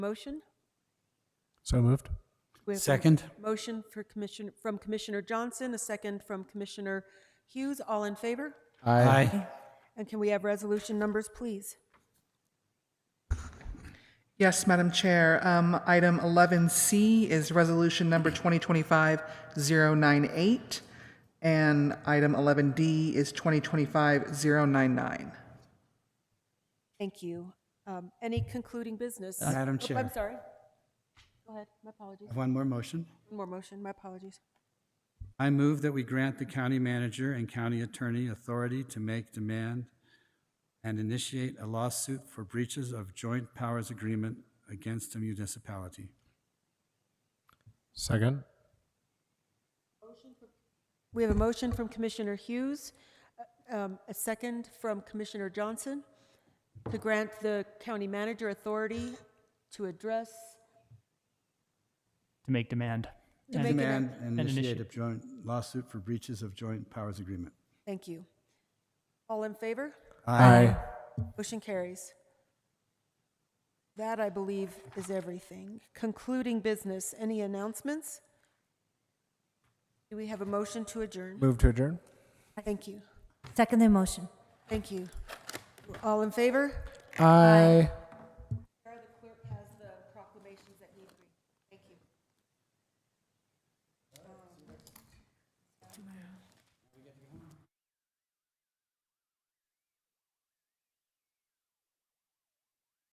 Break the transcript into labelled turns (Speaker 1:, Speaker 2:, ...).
Speaker 1: Motion?
Speaker 2: So moved.
Speaker 1: We have a
Speaker 3: Second?
Speaker 1: Motion for Commissioner, from Commissioner Johnson, a second from Commissioner Hughes. All in favor?
Speaker 3: Aye.
Speaker 1: And can we have resolution numbers, please?
Speaker 4: Yes, Madam Chair. Um, Item 11C is Resolution Number 2025-098, and item 11D is 2025-099.
Speaker 1: Thank you. Um, Any concluding business?
Speaker 3: Uh, Madam
Speaker 1: Oh,
Speaker 3: Chair.
Speaker 1: I'm sorry. Go ahead, my apologies.
Speaker 3: One more motion.
Speaker 1: One more motion, my apologies.
Speaker 3: I move that we grant the county manager and county attorney authority to make demand and initiate a lawsuit for breaches of joint powers agreement against a municipality.
Speaker 2: Second.
Speaker 1: We have a motion from Commissioner Hughes, uh, um, a second from Commissioner Johnson to grant the county manager authority to address,
Speaker 5: to make demand.
Speaker 1: to
Speaker 5: And
Speaker 1: make an,
Speaker 3: Demand and
Speaker 5: And
Speaker 3: initiate a
Speaker 5: initiate.
Speaker 3: joint lawsuit for breaches of joint powers agreement.
Speaker 1: thank you. All in favor?
Speaker 2: Aye.
Speaker 1: Motion carries. That, I believe, is everything. Concluding business, any announcements? Do we have a motion to adjourn?
Speaker 2: Move to adjourn.
Speaker 1: Thank you.
Speaker 6: Second the motion.
Speaker 1: Thank you. All in favor?
Speaker 2: Aye.